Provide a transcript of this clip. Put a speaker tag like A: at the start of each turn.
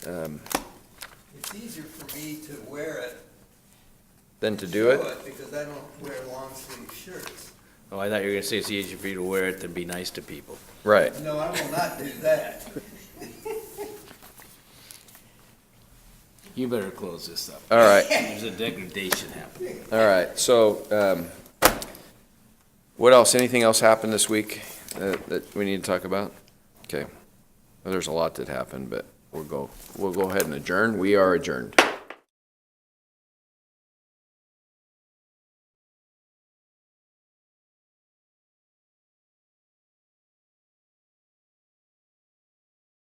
A: um,
B: It's easier for me to wear it.
A: than to
B: and
A: do it?
B: show Because I don't wear long sleeve shirts.
C: Oh, I thought you were gonna say it's easier for you to wear it than be nice to people.
A: Right.
B: No, I will not do that.
C: You better close this up.
A: All right.
C: There's a degradation happening.
A: All right, so, um, what else, anything else happened this week that, that we need to talk about? Okay, Well, there's a lot that happened, but we'll go, we'll go ahead and adjourn, we are adjourned.